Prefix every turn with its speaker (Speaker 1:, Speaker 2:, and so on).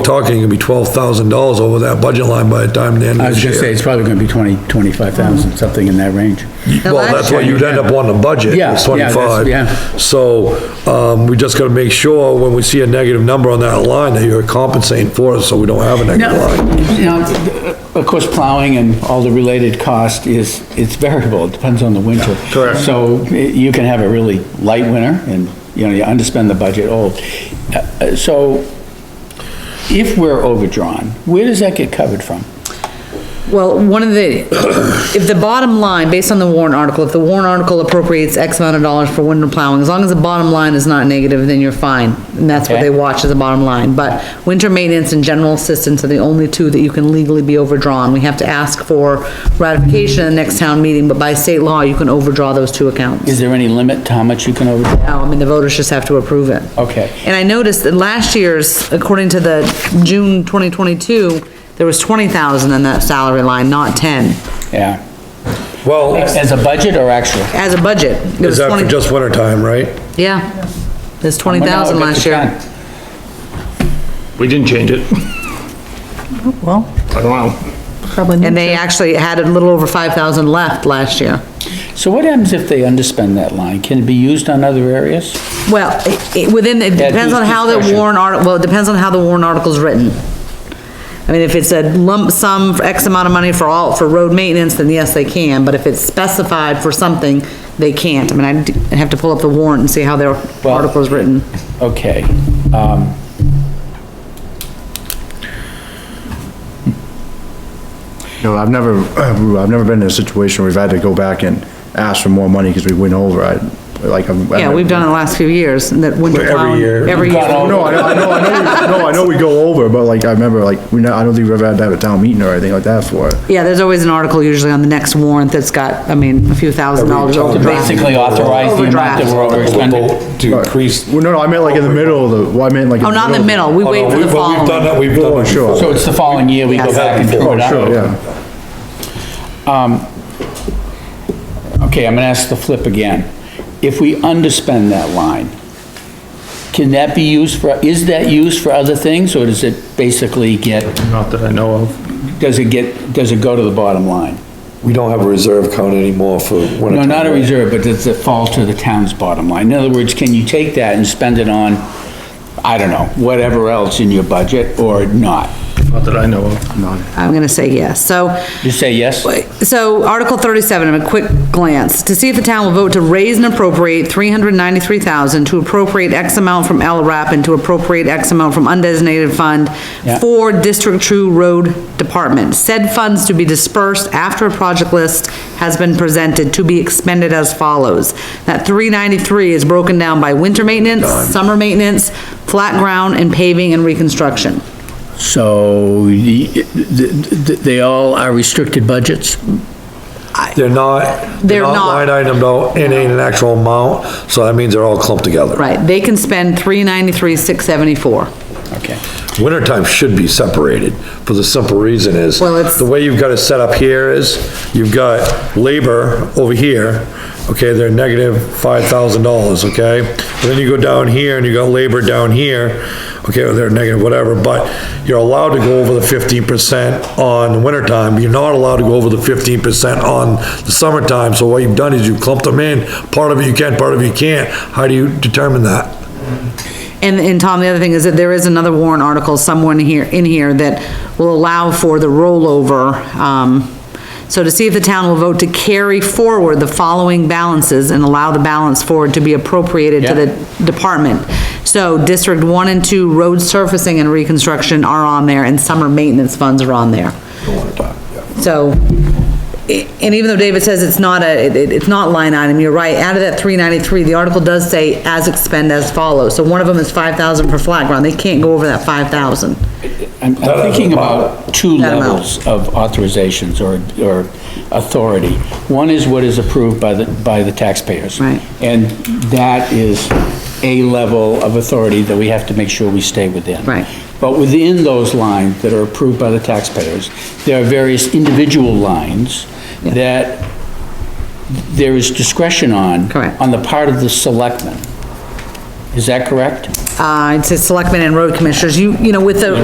Speaker 1: talking, it'd be twelve thousand dollars over that budget line by the time the end
Speaker 2: I
Speaker 1: of
Speaker 2: was
Speaker 1: this
Speaker 2: gonna say,
Speaker 1: year.
Speaker 2: it's probably gonna be twenty, twenty-five thousand, something in that range.
Speaker 1: Well, that's what you'd end up on the budget,
Speaker 2: Yeah,
Speaker 1: it's
Speaker 2: yeah, that's-
Speaker 1: twenty-five.
Speaker 2: yeah.
Speaker 1: So, um, we just gotta make sure when we see a negative number on that line, that you're compensating for it, so we don't have a
Speaker 2: Now,
Speaker 1: negative line.
Speaker 2: you know, of course, plowing and all the related cost is, it's variable, it depends on the winter.
Speaker 3: Correct.
Speaker 2: So eh, you can have a really light winter and, you know, you underspend the budget, oh. Uh, uh, So if we're overdrawn, where does that get covered from?
Speaker 4: Well, one of the, if the bottom line, based on the warrant article, if the warrant article appropriates X amount of dollars for winter plowing, as long as the bottom line is not negative, then you're fine. And that's what
Speaker 2: Okay.
Speaker 4: they watch as the bottom line. But winter maintenance and general assistance are the only two that you can legally be overdrawn. We have to ask for ratification at the next town meeting, but by state law, you can overdraw those two accounts.
Speaker 2: Is there any limit to how much you can overdraw?
Speaker 4: Now, I mean, the voters just have to approve it.
Speaker 2: Okay.
Speaker 4: And I noticed that last year's, according to the June 2022, there was 20,000 in that salary line, not 10.
Speaker 2: Yeah.
Speaker 1: Well,
Speaker 2: As a budget or actual?
Speaker 4: As a budget. it
Speaker 1: is
Speaker 4: was
Speaker 1: that for
Speaker 4: 20
Speaker 1: just winter time, right?
Speaker 4: Yeah, there's twenty thousand
Speaker 2: Well, no,
Speaker 4: last
Speaker 2: that's
Speaker 4: year.
Speaker 3: We didn't change it.
Speaker 4: Well.
Speaker 3: I don't know.
Speaker 5: Probably
Speaker 4: And
Speaker 5: need
Speaker 4: they actually had a little over five thousand left last year.
Speaker 2: done. So what happens if they underspend that line? Can it be used on other areas?
Speaker 4: Well, it- it, within, it
Speaker 2: Yeah,
Speaker 4: depends on
Speaker 2: who's
Speaker 4: how the
Speaker 2: discretion?
Speaker 4: warrant article, well, it depends on how the warrant article's written. I mean, if it's a lump sum for X amount of money for all, for road maintenance, then yes, they can, but if it's specified for something, they can't. I mean, I'd I'd have to pull up the warrant and see how their
Speaker 2: Well-
Speaker 4: article's written.
Speaker 2: Okay, um.
Speaker 6: No, I've never, I've never been in a situation where we've had to go back and ask for more money because we went over, I, like, I'm.
Speaker 4: Yeah, we've done it the last few years, and that winter
Speaker 1: Every
Speaker 4: plowing.
Speaker 1: year.
Speaker 4: Every
Speaker 2: We've gone
Speaker 4: year.
Speaker 2: all-
Speaker 6: No, I know, I know, I know, we- no, I know we go over, but like, I remember, like, we, not- I don't think we've ever had to have a town meeting or anything like that for it.
Speaker 4: Yeah, there's always an article usually on the next warrant that's got, I mean, a few thousand dollars
Speaker 1: time.
Speaker 2: To
Speaker 4: overdraft.
Speaker 2: basically authorize the amount that we're overexpending.
Speaker 7: to increase.
Speaker 6: Well, no, no, I meant like in the middle of the, well, I meant like. in
Speaker 4: Oh, not in the middle, we wait for
Speaker 7: But we've
Speaker 4: the
Speaker 7: done
Speaker 4: following.
Speaker 7: that, we've done
Speaker 6: Oh,
Speaker 7: that before.
Speaker 6: sure.
Speaker 2: So it's the following year we go
Speaker 4: Yes.
Speaker 2: back and throw
Speaker 6: Oh,
Speaker 2: it
Speaker 6: sure,
Speaker 2: out?
Speaker 6: yeah.
Speaker 2: Okay, I'm gonna ask the flip again. If we underspend that line, can that be used for, is that used for other things, or does it basically get,
Speaker 3: Not that I know of.
Speaker 2: does it get, does it go to the bottom line?
Speaker 7: We don't have a reserve account anymore for winter.
Speaker 2: No,
Speaker 7: time.
Speaker 2: not a reserve, but does it fall to the town's bottom line? In other words, can you take that and spend it on, I don't know, whatever else in your budget, or not?
Speaker 3: Not that I know of.
Speaker 4: I'm gonna say yes, so.
Speaker 2: Just say yes?
Speaker 4: So Article thirty-seven, a quick glance, to see if the town will vote to raise and appropriate three hundred ninety-three thousand to appropriate X amount from LRAP and to appropriate X amount from undesignated fund
Speaker 2: Yeah.
Speaker 4: for District Two Road Department. Said funds to be dispersed after a project list has been presented to be expended as follows. That three ninety-three is broken down by winter maintenance, summer maintenance, flat ground, and paving and reconstruction.
Speaker 2: So, the- the- they all are restricted budgets?
Speaker 1: They're not, they're
Speaker 4: They're
Speaker 1: not
Speaker 4: not.
Speaker 1: line itemed out, it ain't an actual amount, so that means they're all clumped together.
Speaker 4: Right, they can spend three ninety-three, six seventy-four.
Speaker 2: Okay.
Speaker 1: Wintertime should be separated, for the simple reason is,
Speaker 4: Well, it's-
Speaker 1: the way you've got it set up here is, you've got labor over here, okay, they're negative five thousand dollars, okay? And then you go down here and you got labor down here, okay, or they're negative whatever, but you're allowed to go over the fifteen percent on the wintertime, but you're not allowed to go over the fifteen percent on the summertime, so what you've done is you clumped them in, part of it you can, part of it you can't, how do you determine that?
Speaker 4: And, and Tom, the other thing is that there is another warrant article somewhere in here, in here that will allow for the rollover. um, So to see if the town will vote to carry forward the following balances and allow the balance forward to be appropriated to the department. So District One and Two road surfacing and reconstruction are on there and summer maintenance funds are on there. So, i- and even though David says it's not a, it- it- it's not line item, you're right, out of that three ninety-three, the article does say as expend as follows. So one of them is five thousand for flat ground, they can't go over that five thousand.
Speaker 2: I'm I'm thinking about two
Speaker 4: That amount.
Speaker 2: levels of authorizations or, or authority. One is what is approved by the, by the taxpayers.
Speaker 4: Right.
Speaker 2: And that is a level of authority that we have to make sure we stay within.
Speaker 4: Right.
Speaker 2: But within those lines that are approved by the taxpayers, there are various individual lines that there is discretion on.
Speaker 4: Correct.
Speaker 2: On the part of the selectmen. Is that correct?
Speaker 4: Uh, it says selectmen and road commissioners, you, you know, with the